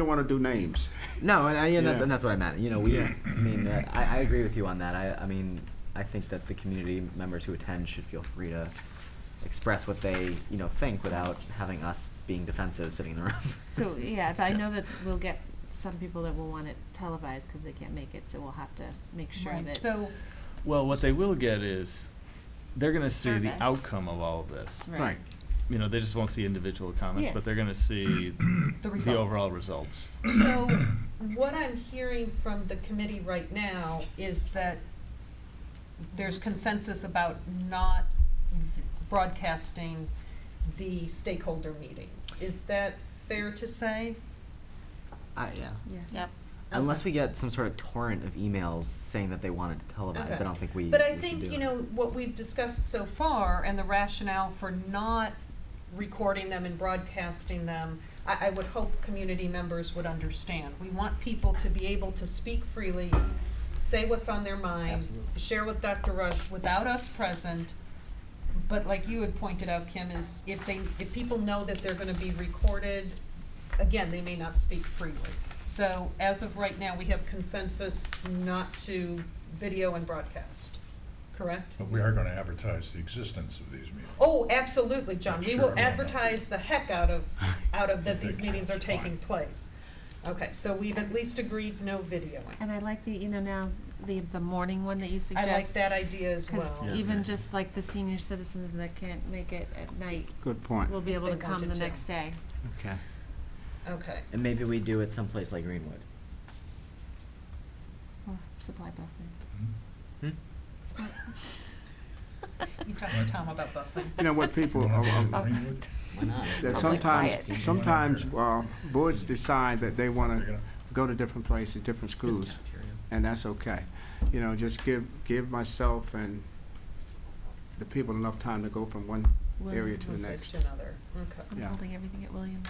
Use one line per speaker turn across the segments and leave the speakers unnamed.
don't want to do names.
No, and, I, and, that's,
Yeah.
and that's what I meant. You know, we. I mean, uh, I, I agree with you on that. I, I mean, I think that the community members who attend should feel free to express what they, you know, think without having us being defensive sitting in the room.
So, yeah, but I know that we'll get some people that will want it televised because they can't make it, so we'll have to make sure
Right,
that.
So,
Well, what they will get is, they're gonna see the
Survey.
outcome of all of this.
right,
You know, they just won't see individual comments,
Yeah.
but they're gonna see
the results.
the overall results.
So, what I'm hearing from the committee right now is that there's consensus about not broadcasting the stakeholder meetings. Is that fair to say?
I, yeah.
Yeah.
Unless we get some sort of torrent of emails saying that they want it televised,
Okay.
I don't think we.
But
we
I
should
think,
do
you
it.
know, what we've discussed so far and the rationale for not recording them and broadcasting them, I, I would hope community members would understand. We want people to be able to speak freely, say what's on their mind,
Absolutely.
share with Dr. Rush without us present. But like you had pointed out, Kim, is if they, if people know that they're gonna be recorded, again, they may not speak freely. So as of right now, we have consensus not to video and broadcast, correct?
But we are gonna advertise the existence of these meetings.
Oh, absolutely, John. We
Sure.
will advertise the heck out of, out of that these
Okay,
meetings are
that's fine.
taking place. Okay, so we've at least agreed no videoing.
And I like the, you know, now, the, the morning one that you
I
suggest.
like that idea as
Because
well.
Yeah.
even just like the senior citizens that can't make it at night
Good point.
will be able
They
to come
wanted
the
to.
next day.
Okay.
Okay.
And maybe we do it someplace like Greenwood.
Or Supply busing.
Hmm?
Hmm?
You talked to Tom about busing.
You know what people are, are-
Greenwood?
Why not?
that
Sounds like
sometimes
quiet.
sometimes uh, boards decide that they want to go to different places, different schools, and that's okay. You know, just give give myself and the people enough time to go from one. Area to the
One place
next.
to another, okay.
I'm
Yeah.
holding everything at Williams.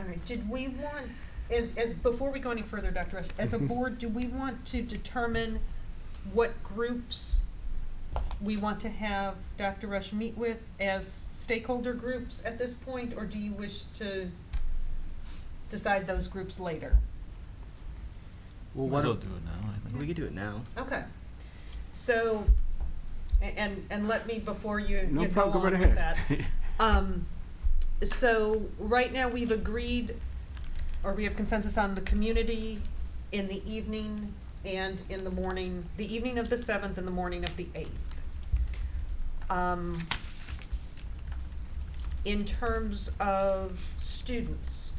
All right, did we want, as, as, before we go any further, Dr. Rush, as a board, do we want to determine what groups we want to have Dr. Rush meet with as stakeholder groups at this point, or do you wish to decide those groups later?
Well,
Might
what
as well
do
do it now, I think.
we could do it now?
Okay, so, a- and, and let me, before you,
No
you go
problem.
on
Go right
with
ahead.
that, Um, so right now we've agreed, or we have consensus on the community in the evening and in the morning, the evening of the seventh and the morning of the eighth. Um, in terms of students,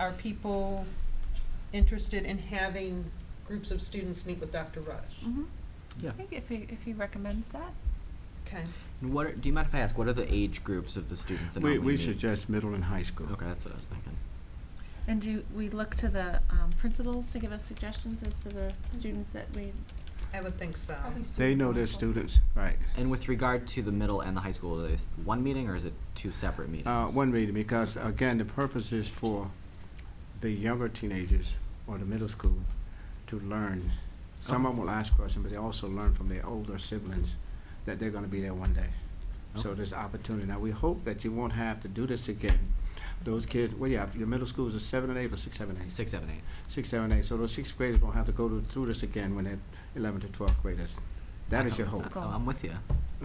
are people interested in having groups of students meet with Dr. Rush?
Mm-hmm.
Yeah.
I think if he, if he recommends that.
Okay,
And what are, do you mind if I ask? What are the age groups of the students that
we
normally
we
meet?
suggest middle and high school.
Okay, that's what I was thinking.
And do we look to the um, principals to give us suggestions as to the
Mm-hmm.
students that we?
I would think so.
They know their students, right?
And with regard to the middle and the high school, is it one meeting or is it two separate meetings?
Uh, one meeting, because again, the purpose is for the younger teenagers or the middle school to learn. Some of them will ask questions, but they also learn from their older siblings that they're gonna be there one day. So
Okay.
there's opportunity. Now, we hope that you won't have to do this again. Those kids, well, yeah, your middle schools are seven and eight or six, seven, eight?
Six, seven, eight.
Six, seven, eight. So those sixth graders won't have to go to- through this again when they're eleven to twelve graders. That is your
I'm-
hope,
Goal.
I'm with you.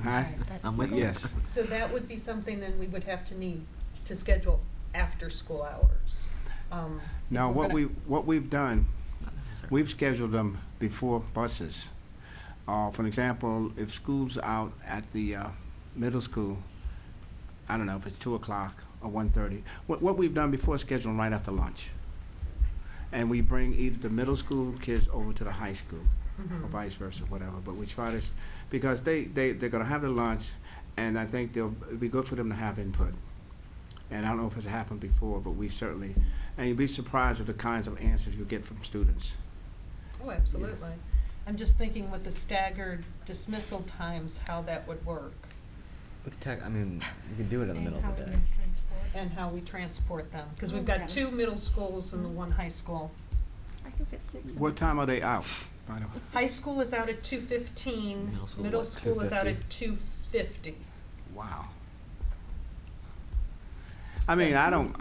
huh?
That
I'm
is
with
the
you.
Yes.
So that would be something then we would have to need to schedule after school hours. Um, if
Now,
we're
what
gonna-
we, what we've done
Not necessarily.
We've scheduled them before buses. Uh, for example, if school's out at the, uh, middle school, I don't know, if it's two o'clock or one thirty, what, what we've done before is schedule 'em right after lunch. And we bring either the middle school kids over to the high school, or
Mhm.
vice versa, whatever, but we try to, s- because they, they, they're gonna have their lunch, and I think they'll, it'd be good for them to have input. And I don't know if it's happened before, but we certainly, and you'd be surprised at the kinds of answers you get from students.
Oh, absolutely. I'm just thinking with the staggered dismissal times, how that would work
We could tag, I mean, we could do it in the middle of the day.
and how we transport them. Because we've
Okay.
got two middle schools and the one high school.
I can fit six. in
What
it.
time are they out, by the way?
High school is out at two fifteen,
Middle school,
middle
what,
school is out at two fifty.
Wow. I mean, I don't,